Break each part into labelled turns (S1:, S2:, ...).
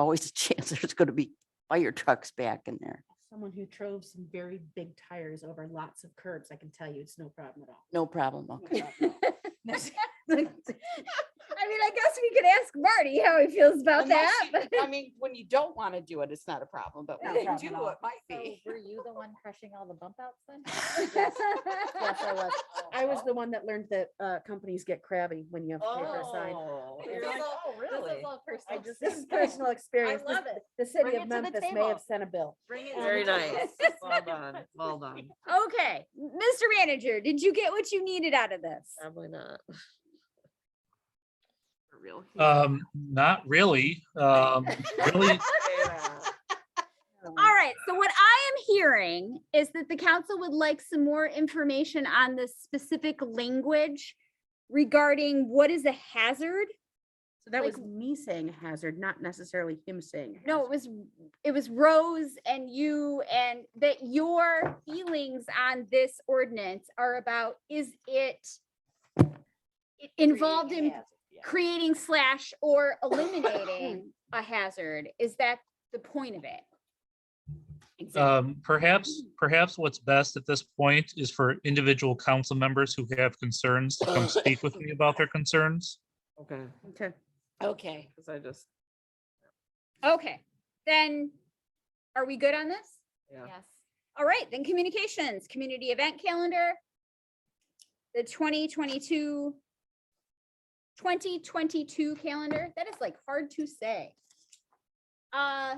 S1: always a chance there's gonna be fire trucks back in there.
S2: Someone who drove some very big tires over lots of curbs, I can tell you it's no problem at all.
S1: No problem, okay.
S3: I mean, I guess we could ask Marty how he feels about
S4: Unless
S3: that.
S4: you-
S3: but-
S4: I mean, when you don't want to do it, it's not a problem, but when
S2: No
S4: you
S2: problem at
S4: do,
S2: all.
S4: it might
S5: So
S4: be.
S5: were you the one crushing all the bump outs then?
S2: Yes, I was. I was the one that learned that uh, companies get crabby when you have to pay for a sign.
S4: Oh,
S2: You're
S4: you're
S2: like,
S4: like, oh,
S5: This
S4: really?
S5: is all
S2: I
S5: personal.
S2: just, this is personal experience.
S5: love
S2: This-
S5: it.
S2: The city
S5: Bring
S2: of
S5: it to the
S2: Memphis may
S5: table.
S2: have sent a bill.
S4: Very nice. Well done, well done.
S3: Okay, Mr. Manager, did you get what you needed out of this?
S5: Um,
S6: Probably not.
S4: For real.
S7: Um, not really. Um, really,
S3: All right, so what I am hearing is that the council would like some more information on the specific language regarding what is a hazard?
S2: So that
S3: Like-
S2: was me saying hazard, not necessarily him saying.
S3: No, it was, it was Rose and you and that your feelings on this ordinance are about, is it it involved in creating slash or eliminating a hazard? Is that the point of it?
S7: um, perhaps, perhaps what's best at this point is for individual council members who have concerns to come speak with me about their concerns.
S4: Okay,
S2: Okay.
S1: Okay.
S4: because I just,
S3: Okay, then are we good on this?
S4: yeah.
S5: Yes.
S3: All right, then communications, community event calendar. The 2022 2022 calendar, that is like hard to say. Uh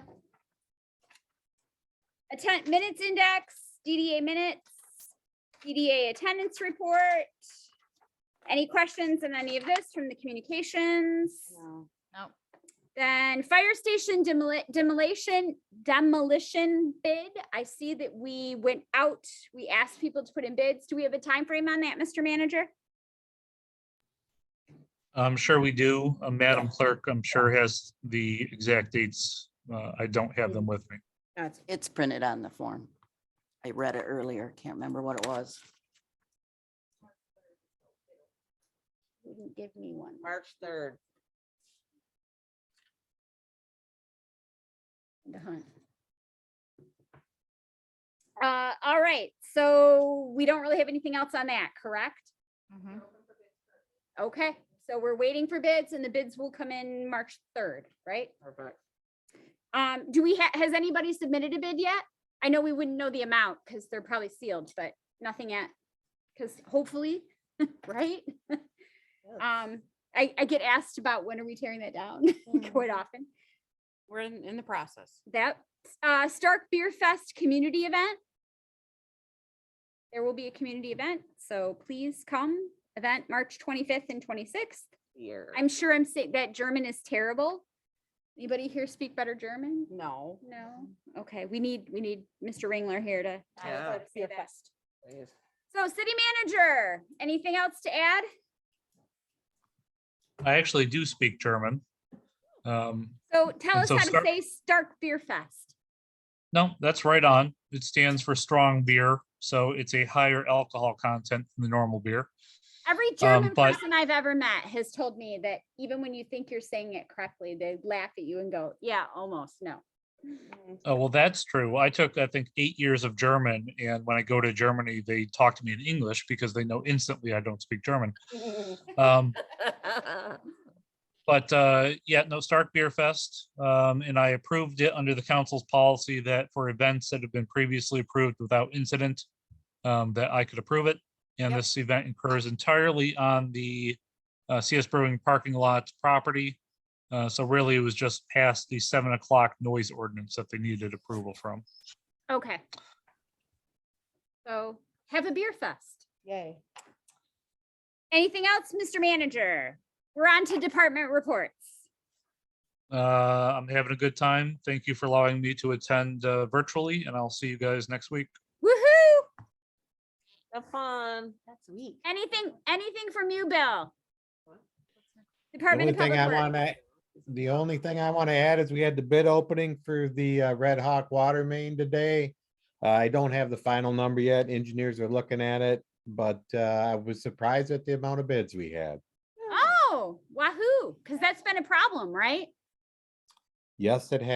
S3: Attend minutes index, DDA minutes, DDA attendance report. Any questions on any of this from the communications?
S5: No.
S3: Then fire station demoli- demolition, demolition bid. I see that we went out, we asked people to put in bids. Do we have a time frame on that, Mr. Manager?
S7: I'm sure we do. Uh, Madam Clerk, I'm sure has the exact dates. Uh, I don't have them with me.
S2: That's
S1: It's printed on the form. I read it earlier, can't remember what it was.
S3: You didn't Give me one.
S4: March third.
S3: to hunt. Uh, all right, so we don't really have anything else on that, correct? Mm-hmm.
S5: Mhm.
S3: Okay, so we're waiting for bids and the bids will come in March third, right?
S4: Perfect.
S3: Um, do we, ha- has anybody submitted a bid yet? I know we wouldn't know the amount because they're probably sealed, but nothing yet. Because hopefully, right? Um, I, I get asked about when are we tearing that down quite often.
S4: Mm-hmm. We're in, in the process.
S3: That, uh, Stark Beer Fest community event. There will be a community event, so please come. Event March twenty-fifth and twenty-sixth.
S4: Here.
S3: I'm sure I'm saying that German is terrible. Anybody here speak better German?
S4: No.
S3: No, okay, we need, we need Mr. Ringler here to.
S4: Yeah.
S3: to say that.
S4: please.
S3: So city manager, anything else to add?
S7: I actually do speak German. Um,
S3: So tell
S7: And
S3: us
S7: so
S3: how to
S7: Stark-
S3: say Stark Beer Fest.
S7: No, that's right on. It stands for strong beer, so it's a higher alcohol content than the normal beer.
S3: Every German
S7: Um, but-
S3: person I've ever met has told me that even when you think you're saying it correctly, they laugh at you and go, yeah, almost, no.
S7: Oh, well, that's true. I took, I think, eight years of German, and when I go to Germany, they talk to me in English because they know instantly I don't speak German. Um, but uh, yeah, no Stark Beer Fest, um, and I approved it under the council's policy that for events that have been previously approved without incident, um, that I could approve it. And
S5: Yep.
S7: this event occurs entirely on the uh, CS Brewing parking lot property. Uh, so really, it was just past the seven o'clock noise ordinance that they needed approval from.
S3: Okay. So have a beer fest.
S2: Yay.
S3: Anything else, Mr. Manager? We're on to department reports.
S7: Uh, I'm having a good time. Thank you for allowing me to attend uh, virtually, and I'll see you guys next week.
S3: Woohoo!
S4: Have fun.
S2: That's weak.
S3: Anything, anything from you, Bill?
S4: What?
S8: The
S3: Department
S8: only
S3: of
S8: thing
S3: Public
S8: I
S3: Works.
S8: want to, the only thing I want to add is we had the bid opening for the uh, Red Hawk Water Main today. Uh, I don't have the final number yet. Engineers are looking at it, but uh, I was surprised at the amount of bids we had.
S3: Oh, wahoo, because that's been a problem, right?
S8: Yes, it has.